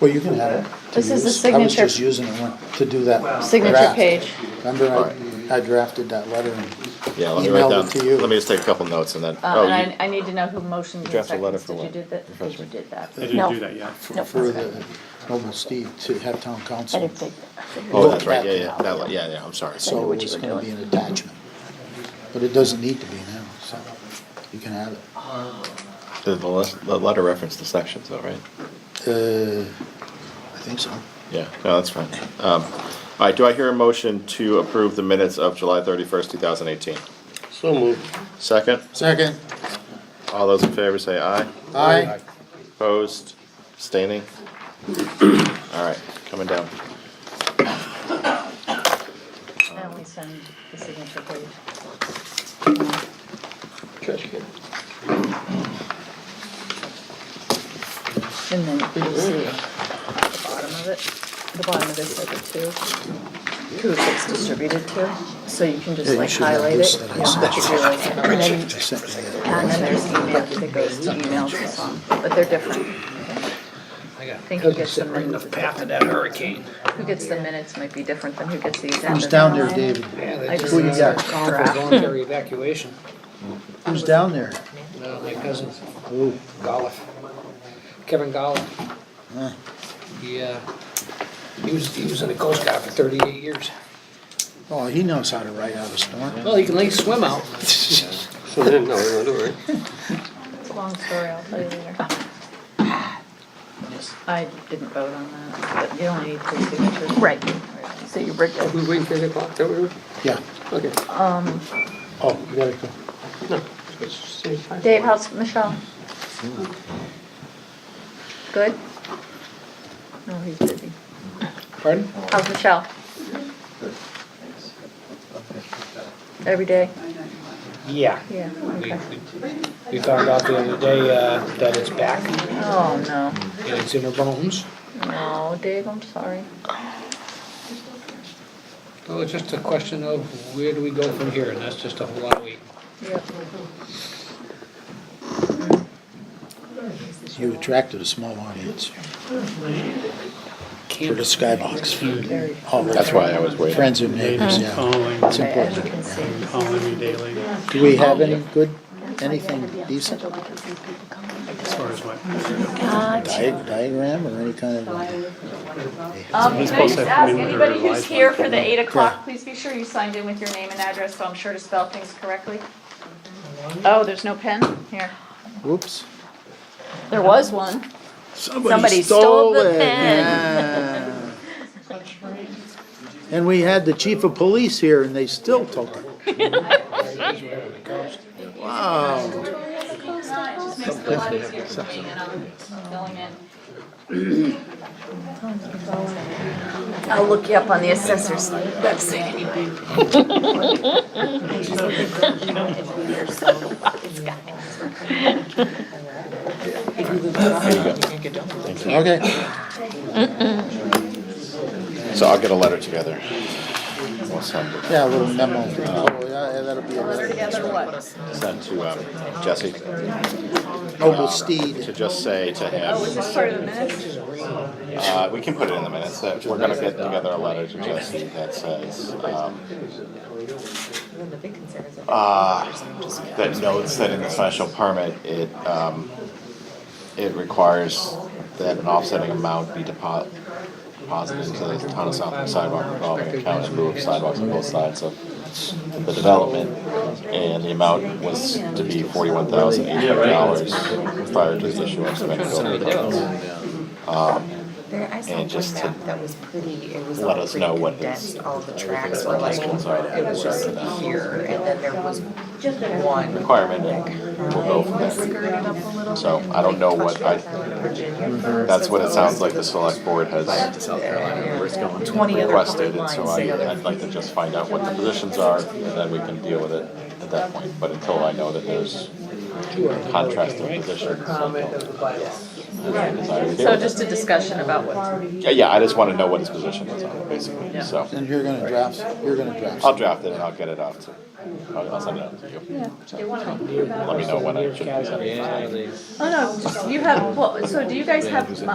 Well, you can have it. to This is the use. I was signature- just using it when- to do that. Signature draft. page. Remember, I I drafted that letter and Yeah, let me write Emailed it to you. down, let me just take a couple notes and then, Uh, oh, and you- I, I need to know who motioned and drafted a letter seconds. for Did you what? do that? Did Refresh you me. do that? I didn't No. do that yet. No. for the noble Steve to have town I council. didn't think. oh, that's right, yeah, Look yeah, at that, one, yeah, yeah, I'm I sorry. knew So what you it's were gonna be doing. an attachment. But it doesn't need to be now, so you can have it. The, the le- the letter referenced the sections though, right? Uh, I think so. Yeah, no, that's fine. Um, all right, do I hear a motion to approve the minutes of July thirty-first, two thousand eighteen? So moved. Second, Second, all those in favor say aye. aye. Opposed, abstaining? All right, coming down. I only send the signature page. Trash can. And then you'll see the bottom of it, the bottom of this paper too, who it gets distributed to. So you Yeah, can just you like should have highlight this it. that I you know, sent what you're doing, And then, I sent you the and then there's email that goes to emails as well, but they're different. I think who gets the minutes, path of that hurricane. who gets the minutes might be different than who gets the agenda. Who's down there, David? Yeah, I they just just Who you got? called for voluntary evacuation. Who's down there? No, my cousin, Ooh, Golliff, Kevin Golliff. Huh. He, uh, he was, he was in the Coast Guard for thirty-eight years. Oh, he knows how to write out a storm. Well, he can at least swim out. So then, no, no, don't worry. It's a long story, I'll tell you later. I didn't vote on that, but you only need three signatures. Right, so you're We waiting for eight o'clock, don't we? Yeah. Okay. Um, Oh, you gotta go. No. it's same time. Dave, how's Michelle? Good? No, he's busy. Pardon? How's Michelle? Every day? Yeah. Yeah, We, okay. we- we found out the other day, uh, that it's back, Oh, no. and it's in her bones. No, Dave, I'm sorry. So it's just a question of where do we go from here, and that's just a whole lot of waiting. Yep. You attracted a small audience for the Can't skybox. Very. All the That's why I was waiting. Friends and neighbors, Ladies yeah. calling, It's Okay, as you important. can see, this is- calling me daily, as Do we have any good, anything decent far as what, di- diagram or any kind of? Um, can I just Supposed to ask, have anybody been who's here for the eight Yeah. o'clock, please be sure you signed in with your name and address, so I'm sure to spell things correctly. Oh, there's no pen? Here, Whoops. there was one. Somebody stole the pen. And we had the chief of police here and they still took it. Wow. It just makes it a lot easier for me, and um, I'm filling in. I'll look you up on the assessor's website anyway. Okay, So I'll get a letter together. We'll send it, Uh, yeah, a little memo. Oh, yeah, that'll be a send to, um, Jesse, to noble steed. just say to him, This is part of the minutes. Uh, we can put it in the minutes, that we're gonna get together a letter to Jesse that says, um, uh, that notes that in the special permit, it, um, it requires that an offsetting amount be depo- deposited into the town of Southwick sidewalk revolving account in lieu of sidewalks on both sides of the development. And the amount was to be forty-one thousand eight hundred dollars prior to the issuance of any building permits. There, I saw Um, And just one to map that was pretty, it was let all us know pretty what his- condensed, all the everything tracks that were like, Michael's already it was just here, and then there was one. requirement and we'll go from there. So I don't know what I, that's what it sounds like the select board has Twenty other requested. colored And so lines, say I, other. I'd like to just find out what the positions are and then we can deal with it at that point. But until I know that there's contrasting positions. I don't desire to deal So with it. just a discussion about what, Yeah, yeah, I just want to know what his position is on it basically, so. And you're gonna draft, you're gonna draft. I'll draft it and I'll get it off to, I'll I'll send it out to you. So, Let me know when I should send it. oh no, just- you have, well, so do you guys have,